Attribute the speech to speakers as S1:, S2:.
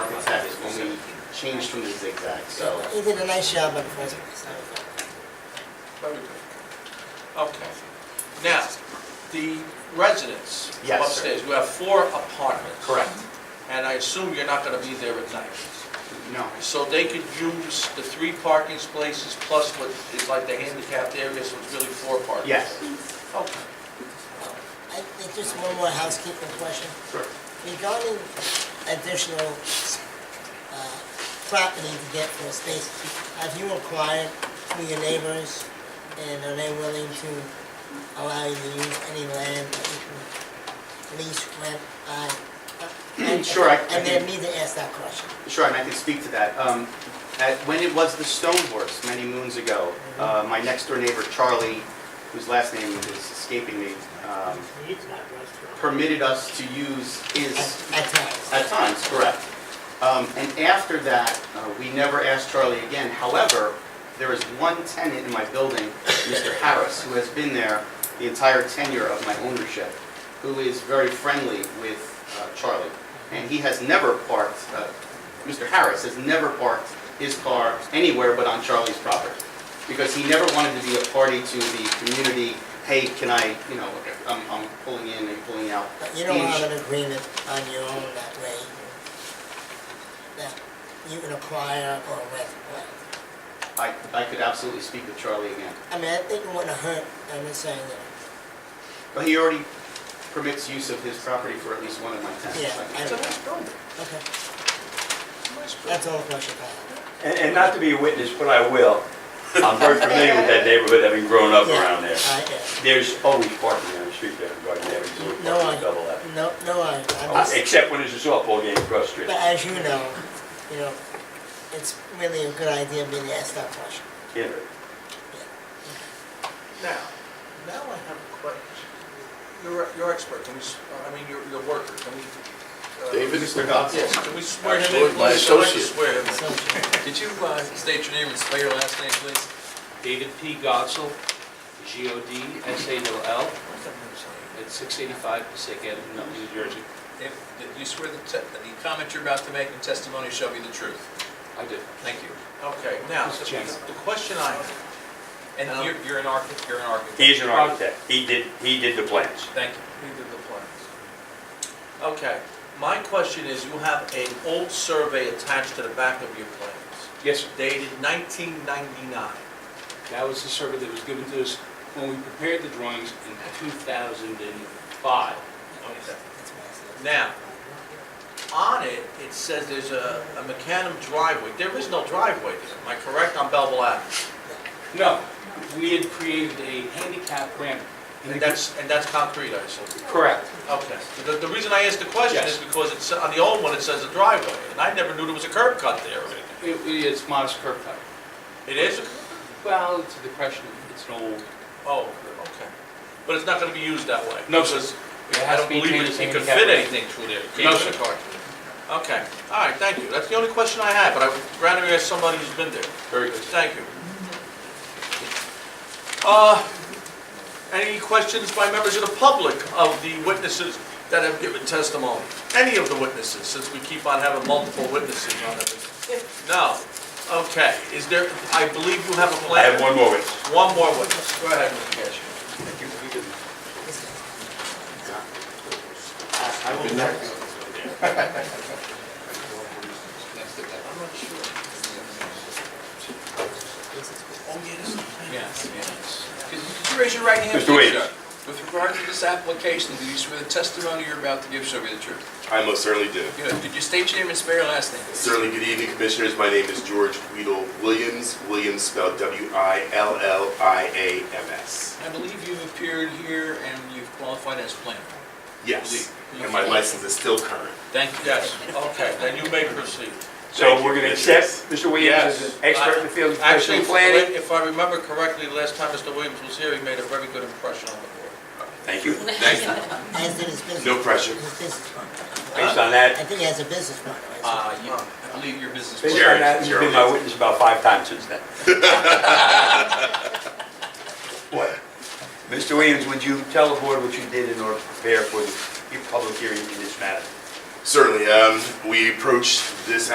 S1: change to a zigzag, so.
S2: You did a nice job on the presentation.
S3: Very good. Okay. Now, the residents
S1: Yes, sir.
S3: upstairs, we have four apartments.
S1: Correct.
S3: And I assume you're not going to be there at night.
S1: No.
S3: So they could use the three parking spaces plus what is like the handicapped area, so it's really four parking.
S1: Yes.
S3: Okay.
S2: I think just one more housekeeping question.
S1: Sure.
S2: Regarding additional uh, property to get for a space, have you inquired through your neighbors? And are they willing to allow you to use any land that you can lease, rent, buy? And-
S1: Sure, I- I
S2: And they
S1: can-
S2: need to ask that question.
S1: Sure, and I can speak to that. Um, at- When it was the Stone Horse many moons ago, uh, my next-door neighbor, Charlie, whose last name is escaping me, um, permitted us to use his,
S2: At times.
S1: at times, correct. Um, And after that, uh, we never asked Charlie again. However, there is one tenant in my building, Mr. Harris, who has been there the entire tenure of my ownership, who is very friendly with uh, Charlie. And he has never parked, uh, Mr. Harris has never parked his car anywhere but on Charlie's property. Because he never wanted to be a party to the community, hey, can I, you know, I'm I'm pulling in and pulling out.
S2: But you don't
S1: He-
S2: have an agreement on your own that way, that you can acquire or rent land.
S1: I, I could absolutely speak with Charlie again.
S2: I mean, I think it wouldn't hurt, I'm just saying, that,
S1: But he already permits use of his property for at least one of my tenants.
S2: Yeah,
S1: I
S3: It's
S1: think.
S3: a nice building.
S2: okay,
S3: Nice building.
S2: that's all the question I have.
S4: And, and not to be a witness, but I will. I'm very familiar with that neighborhood, having grown up
S2: Yeah,
S4: around there.
S2: I, uh,
S4: There's always parking on the street there, right there, it's always
S2: No,
S4: parking
S2: I,
S4: double up.
S2: no, no, I, I'm
S4: Uh,
S2: just,
S4: Except when there's a softball game across the street.
S2: but as you know, you know, it's really a good idea being asked that question.
S4: Yeah.
S3: Now, now I have a question. You're, you're expert, can we, s- uh, I mean, you're, you're worker, can we? uh,
S5: David?
S1: Mr. Gottzel.
S3: Yes, can we swear him in?
S5: Absolutely, my
S3: please? I'd like to
S5: associate.
S3: Swear him in.
S2: So,
S6: Could you uh, state your name and spell your last name, please?
S7: David P. Godsell, G-O-D-S-A-L-L, at 685 Passaic Avenue, Nutley, New Jersey.
S6: If that you swear the te- that the comment you're about to make in testimony shall be the truth.
S7: I do.
S6: Thank you.
S3: Okay, now,
S7: Mr. Chairman.
S3: the question I have,
S6: And
S3: Um,
S6: you're you're an architect, you're an architect.
S4: He is an architect, he did, he did the plans.
S6: Thank you.
S3: he did the plans. Okay, my question is, you have an old survey attached to the back of your plans,
S7: Yes, sir.
S3: dated 1999.
S7: That was the survey that was given to us when we prepared the drawings in 2005.
S3: Okay.
S2: that's what I said.
S3: Now, on it, it says there's a, a macadam driveway. There is no driveway there, am I correct, on Belleville Avenue?
S7: No, we had created a handicap ramp. in the-
S3: And that's, and that's concrete, I assume?
S7: Correct.
S3: Okay. The, the reason I asked the question
S7: Yes.
S3: is because it's, on the old one, it says a driveway, and I never knew there was a curb cut there.
S7: It- It's modest curb cut.
S3: It is? a-
S7: Well, it's a depression, it's an old,
S3: Oh, okay. But it's not gonna be used that way?
S7: No, sir.
S3: Because I
S7: It has
S3: don't
S7: to be
S3: believe
S7: treated
S3: it-
S7: as
S3: you could
S7: handicap
S3: fit
S7: ramp.
S3: anything through there. You can't
S7: No,
S3: fit a
S7: sir.
S3: car through there. Okay, all right, thank you. That's the only question I had, but I would rather ask somebody who's been there.
S7: very good.
S3: Thank you. Uh, Any questions by members of the public of the witnesses that have given testimony? Any of the witnesses, since we keep on having multiple witnesses on everything? No? Okay, is there, I believe you have a
S4: I have
S3: plan?
S4: one more witness.
S3: One more witness. Go ahead, Mr. Gassion.
S1: I will next.
S6: Yes, yes. Could could you raise your right hand,
S4: Mr.
S6: please,
S4: Williams.
S6: sir? With regard to this application, do you swear the testimony you're about to give shall be the truth?
S5: I most certainly do.
S6: Good. Could you state your name and spell your last name?
S5: Certainly, good evening, Commissioners. My name is George Weedle Williams, Williams spelled W-I-L-L-I-A-M-S.
S6: I believe you've appeared here and you've qualified as planner.
S5: Yes, and my license is still current.
S6: Thank you.
S3: Yes, okay, then you may proceed.
S4: So
S5: Thank you,
S4: we're gonna accept
S5: Commissioners.
S4: Mr. Williams as an expert in the field of
S3: Actually,
S4: professional
S3: if-
S4: planning?
S3: if I remember correctly, last time Mr. Williams was here, he made a very good impression on the board.
S4: Thank you.
S5: Thank you.
S2: As did his business.
S5: No pressure.
S2: His business partner.
S4: Based on that,
S2: I think he has a business partner. right?
S6: Uh, you- I believe your business.
S4: Based
S5: Jerry,
S4: on that, you've been
S5: Jerry.
S4: my witness about five times since then. What? Mr. Williams, would you tell the board what you did in order to prepare for the public hearing in this matter?
S5: Certainly, um, we approached this